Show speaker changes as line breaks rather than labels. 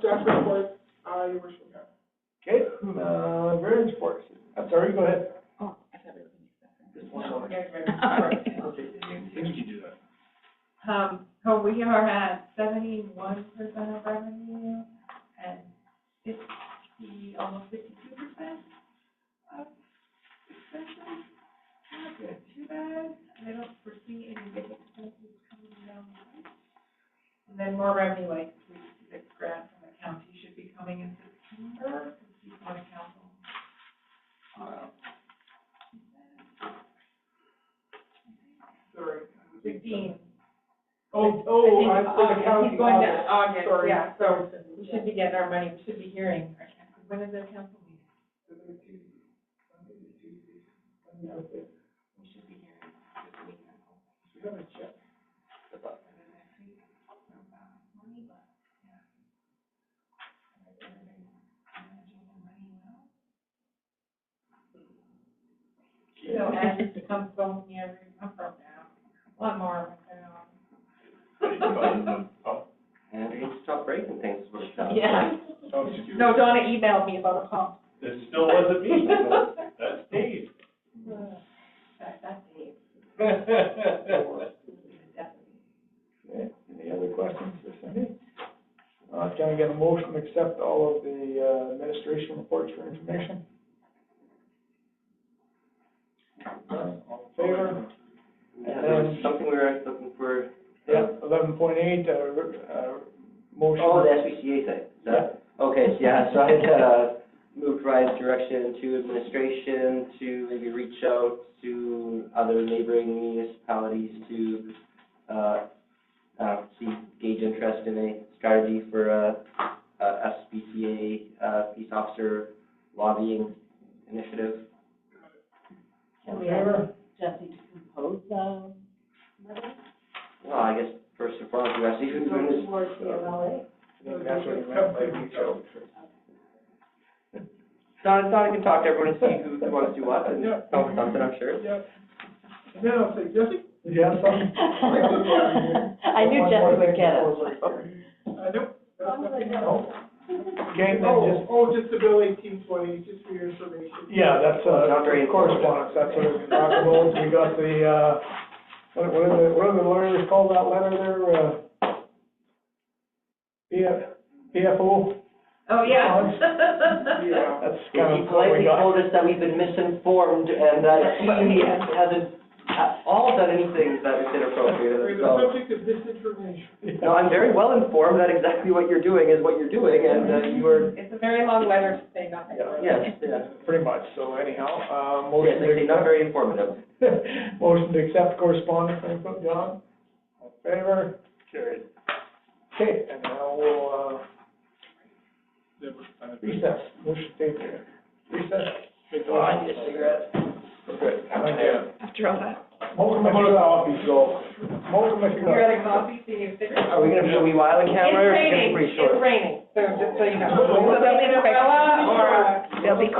staff report, uh, your worship.
Okay, uh, variance board, I'm sorry, go ahead.
Oh, I thought we were gonna do
Just one moment.
Okay.
Okay, Things you do that.
Um, so we are at seventy-one percent of revenue and fifty, almost fifty-two percent of expenses. Not good, too bad, and I don't foresee any big expenses coming down. the pipe. And then more revenue, like, we, the grant from the county should be coming in September, because we want to council. Uh,
Sorry.
Fifteen,
Oh, oh,
I
I'm
think,
for the
uh,
county.
he's going to
audit.
August,
Sorry.
yeah, so we should be getting our money, we should be hearing, when is the council meeting? We should be hearing this week.
We haven't checked.
So as it comes from here, I'm from now, one more, um,
And we can stop breaking things, is what it sounds like.
yeah.
Oh, excuse
No, Donna emailed me about a pump.
This still wasn't me, so that's Dave.
That, that's it.
Okay,
Definitely.
Any other questions for Cindy? Uh, can we get a motion to accept all of the uh, administration reports for information? Uh, All in favor?
Yeah, there was something we were actually looking for.
Yeah, eleven point eight, uh, uh, motion.
Oh, the SBCA thing, Is that- Okay, yeah, so I had, uh, moved Ryan's direction to administration to maybe reach out to other neighboring municipalities to, uh, uh, see, gauge interest in a strategy for a, a SBCA, uh, peace officer lobbying initiative.
that.
All in favor?
Jesse to compose, um,
Well, I guess first and foremost, we have to see who's doing this.
towards the MLA.
I think That's what he meant by reach out.
Don, Don can talk to everyone and see who who wants to do what, and
Yeah.
come with something, I'm sure.
Yeah. And then I'll say, Jesse,
Did you have something?
I knew Jesse would get it.
uh, nope. that's nothing.
No. Okay, then
Oh,
just,
oh, just the bill eighteen twenty, just for your information.
yeah, that's, uh,
Not very
correspondence, that's what we talked about, we got the, uh, what, what are the, what do the lawyers call that letter there, uh? P F, PFO,
Oh, yeah.
Yeah.
that's kind
He
of what we
politely
got.
told us that we've been misinformed and that he
Yeah.
hasn't at all done anything that is
We're
inappropriate,
the
so.
subject of disinformation.
No, I'm very well informed that exactly what you're doing is what you're doing, and uh, you are,
It's a very long letter to say nothing.
Yeah.
yes, yeah.
Pretty much, so anyhow, uh, motion
Yes,
to
actually, not very informative.
accept, motion to accept correspondence, any put John? All in favor? Carried. Okay, and now we'll, uh, recess, motion to take a recess.
Oh, I need a cigarette.
Good.
After all that.
Motion by Mr. Coffey, so. Motion by Mr.
You got a copy, so you figure.
Are we gonna do a wee while in
It's
camera, or is it gonna
raining,
be pretty short?
it's raining, so just so you know.
Well,
Something umbrella or?
They'll be quick.